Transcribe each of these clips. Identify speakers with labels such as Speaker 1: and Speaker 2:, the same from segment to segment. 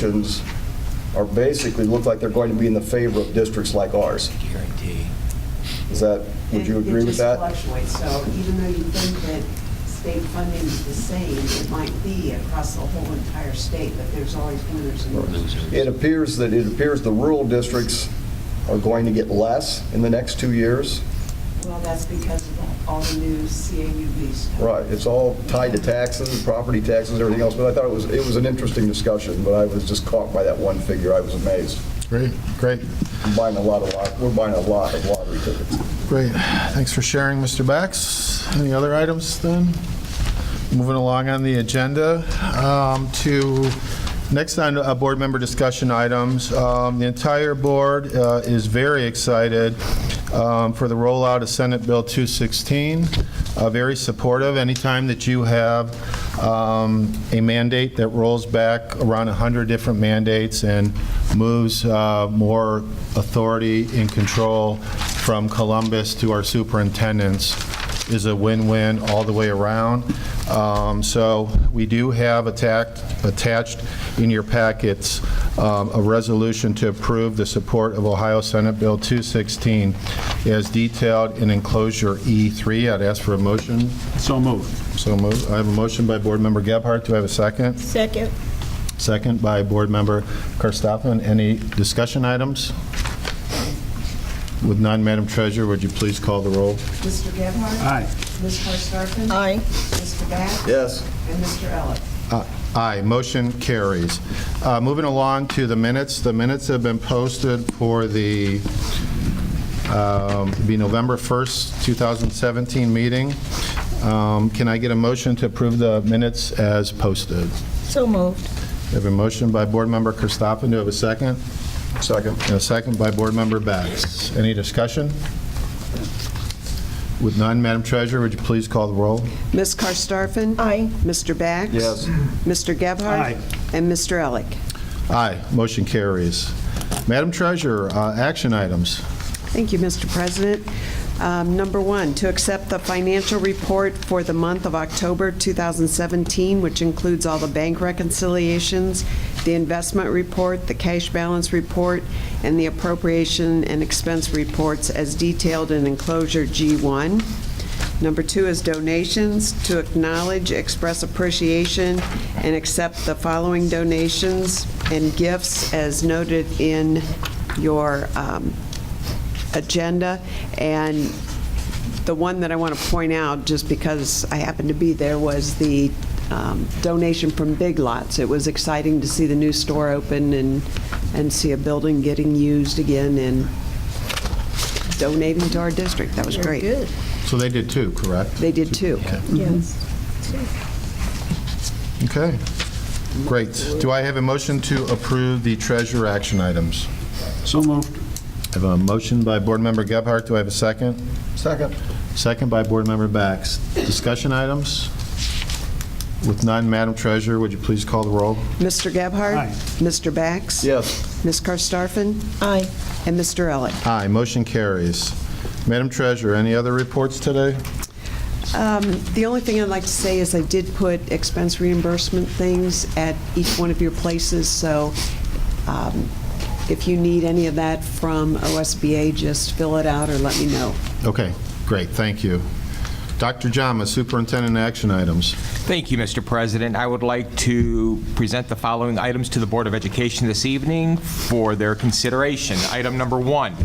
Speaker 1: recommendations are basically, look like they're going to be in the favor of districts like ours.
Speaker 2: Guarantee.
Speaker 1: Is that, would you
Speaker 3: It-
Speaker 1: agree with that?
Speaker 3: It just fluctuates, so even though you think that state funding is the same, it might be across the whole entire state, but there's always winners and losers.
Speaker 1: It appears that, it appears the rural districts are going to get less in the next two years.
Speaker 3: Well, that's because of all the new CAUV stuff.
Speaker 1: Right, it's all tied to taxes, property taxes, everything else, but I thought it was, it was an interesting discussion, but I was just caught by that one figure, I was amazed.
Speaker 4: Great, great,
Speaker 1: I'm Buying a lot of, lot- we're buying a lot of lottery tickets.
Speaker 4: great. Thanks for sharing, Mr. Bax. Any other items then? Moving along on the agenda um, to next on uh, board member discussion items. Um, The entire board uh, is very excited um, for the rollout of Senate Bill 216, uh, very supportive. Anytime that you have um, a mandate that rolls back around 100 different mandates and moves uh, more authority and control from Columbus to our superintendents, is a win-win all the way around. Um, So we do have attacked- attached in your packets um, a resolution to approve the support of Ohio Senate Bill 216 as detailed in enclosure E3. I'd ask for a motion.
Speaker 5: So moved.
Speaker 4: So moved. I have a motion by Board Member Gebhardt. Do I have a second?
Speaker 6: Second.
Speaker 4: Second by Board Member Karstoffen. Any discussion items? With none, Madam Treasurer, would you please call the roll?
Speaker 3: Mr. Gebhardt?
Speaker 5: Aye.
Speaker 3: Ms. Karstafen?
Speaker 6: Aye.
Speaker 3: Mr. Bax?
Speaker 1: Yes.
Speaker 3: And Mr. Elick?
Speaker 4: Uh, Aye, motion carries. Uh, Moving along to the minutes, the minutes have been posted for the, um, be November 1st, 2017 meeting. Um, Can I get a motion to approve the minutes as posted?
Speaker 6: So moved.
Speaker 4: We have a motion by Board Member Kristoffen, do I have a second? Second. And a second by Board Member Bax. Any discussion? With none, Madam Treasurer, would you please call the roll?
Speaker 7: Ms. Karstafen?
Speaker 6: Aye.
Speaker 7: Mr. Bax?
Speaker 1: Yes.
Speaker 7: Mr. Gebhardt?
Speaker 5: Aye.
Speaker 7: And Mr. Elick?
Speaker 4: Aye, motion carries. Madam Treasurer, uh, action items.
Speaker 7: Thank you, Mr. President. Um, Number one, to accept the financial report for the month of October 2017, which includes all the bank reconciliations, the investment report, the cash balance report, and the appropriation and expense reports as detailed in enclosure G1. Number two is donations, to acknowledge, express appreciation, and accept the following donations and gifts as noted in your um, agenda. And the one that I want to point out, just because I happened to be there, was the um, donation from Big Lots. It was exciting to see the new store open and, and see a building getting used again and donating to our district. That was
Speaker 6: Very
Speaker 7: great.
Speaker 6: good.
Speaker 4: So they did two, correct?
Speaker 7: They did too.
Speaker 6: Yes.
Speaker 4: Okay, great. Do I have a motion to approve the treasurer action items?
Speaker 5: So moved.
Speaker 4: I have a motion by Board Member Gebhardt, do I have a second? Second. Second by Board Member Bax. Discussion items? With none, Madam Treasurer, would you please call the roll?
Speaker 7: Mr. Gebhardt?
Speaker 5: Aye.
Speaker 7: Mr. Bax?
Speaker 1: Yes.
Speaker 7: Ms. Karstafen?
Speaker 6: Aye.
Speaker 7: And Mr. Elick?
Speaker 4: Aye, motion carries. Madam Treasurer, any other reports today?
Speaker 7: Um, The only thing I'd like to say is I did put expense reimbursement things at each one of your places, so um, if you need any of that from OSBA, just fill it out or let me know.
Speaker 4: Okay, great, thank you. Dr. Jama, Superintendent Action Items.
Speaker 2: Thank you, Mr. President. I would like to present the following items to the Board of Education this evening for their consideration. Item number one,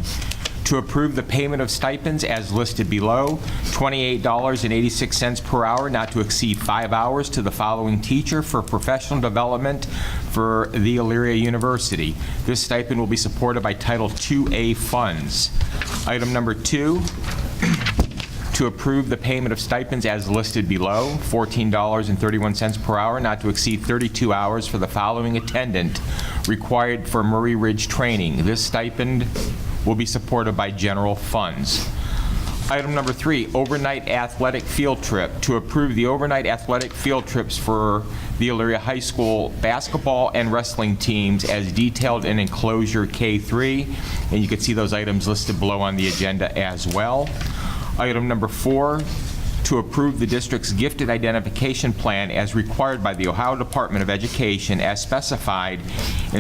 Speaker 2: to approve the payment of stipends as listed below, $28.86 per hour, not to exceed five hours, to the following teacher for professional development for the Elyria University. This stipend will be supported by Title IIA funds. Item number two, to approve the payment of stipends as listed below, $14.31 per hour, not to exceed 32 hours for the following attendant required for Murray Ridge training. This stipend will be supported by general funds. Item number three, overnight athletic field trip. To approve the overnight athletic field trips for the Elyria High School basketball and wrestling teams as detailed in enclosure K3, and you can see those items listed below on the agenda as well. Item number four, to approve the district's gifted identification plan as required by the Ohio Department of Education as specified in